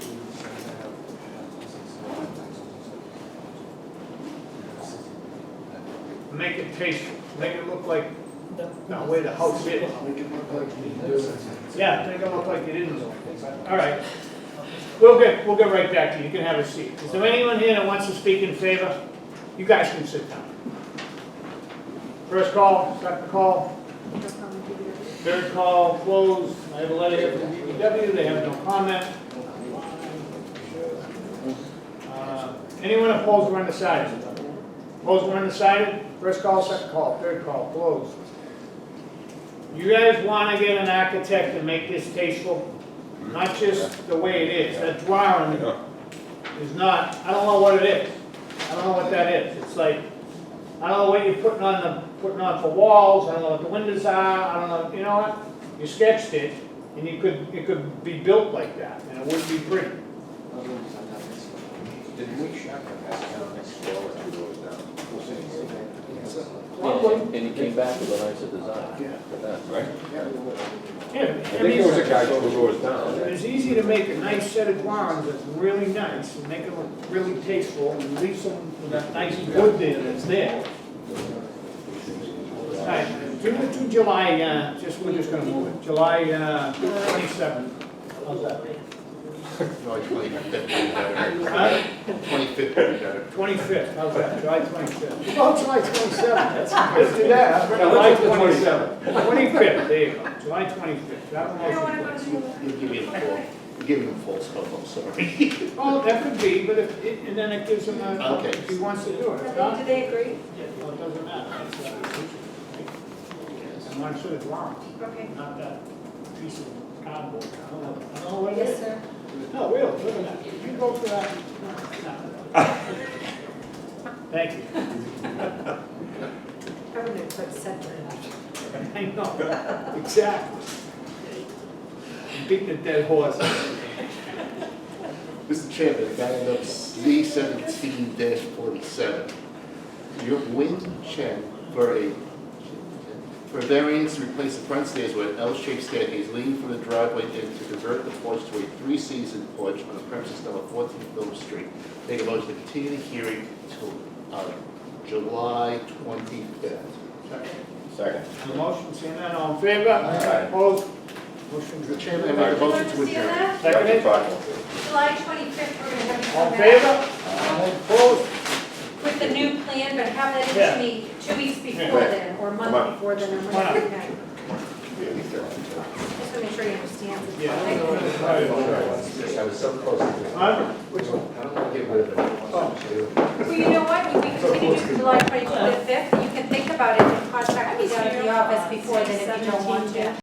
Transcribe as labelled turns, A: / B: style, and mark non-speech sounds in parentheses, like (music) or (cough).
A: make it tasteful, make it look like the
B: The-
A: way the house
C: Make
A: is.
C: it look like you do it.
A: Yeah, make it look like it isn't. All right. We'll get, we'll get right back to you. You can have a seat. Is there anyone here that wants to speak in favor? You guys can sit down. First call, second call, third call, closed. I have a letter here from DPW. They have no comment. Uh, Anyone opposed or undecided? Opposed or undecided? First call, second call, third call, closed. You guys wanna get an architect to make this tasteful? Not just the way it is, that drawing is not, I don't know what it is. I don't know what that is. It's like, I don't know what you're putting on the, putting on for walls, I don't know what the windows are, I don't know, you know what? You sketched it, and you could, it could be built like that, and it would be pretty.
D: Did we check the past count next floor as we go down?
E: And he came back with a nicer design for that.
D: Right?
A: Yeah,
D: I
A: I
D: think
A: mean,
D: there was a guy two doors down. that-
A: it's easy to make a nice set of drawings that's really nice, and make them look really tasteful, and leave some, with that nice wood there that's there. All right, give it to July, uh, just, we're just gonna move it, July, uh, twenty-seventh, how's that? Huh?
F: Twenty-fifth would be better.
A: Twenty-fifth, how's that, July twenty-fifth? Oh, July twenty-seventh, let's do that, July
D: let's do the
A: twenty-seventh. Twenty-fifth, there you go, July twenty-fifth, that
B: I
A: one
B: don't wanna
A: was.
B: go to the.
F: You give me the full, give me the full scope, I'm sorry.
A: Oh, that could be, but if, it- and then it gives him a,
F: Okay.
A: if he wants to do it, if not,
B: Do they agree?
A: yeah, well, it doesn't matter. It's, uh, I'm not sure it's wrong,
B: Okay.
A: not that piece of cardboard, I don't know, I don't know what it
B: Yes,
A: is.
B: sir.
A: No, we'll, look at that, you go for that. No, no. Thank you. (laughs)
B: I'm gonna put separate.
A: I know, exactly. Beat the dead horse.
F: Mr. Chairman, that ended up Z seventeen forty-seven. Your wind check for a, for a variance to replace the front stairs with an L-shaped staircase leading from the driveway in to convert the porch to a three-season porch on the premises number fourteen Phillips Street. Make a motion to continue the hearing till, uh, July twenty-fifth.
D: Second.
A: The motion, seeing none, all in favor? Opposed? Motion
F: Mr. Chairman, I make a motion to adjourn.
A: Seconded,
B: July twenty-fifth, we're gonna have you
A: all in
B: come back
A: favor? Opposed?
B: with the new plan, but have that
A: Yeah.
B: in to me two weeks
A: Yeah.
B: before then, or a
D: Come
B: month
D: on.
B: before then, or
A: Come on.
B: whatever. okay? Just to make sure you understand. what's
A: Yeah.
B: going on.
D: I was so close to this.
A: Huh?
D: I don't want to get rid of it.
B: Well, you know what, if we continue to July twenty-fifth, you can think about it and contact me down at the office before then if you don't want to.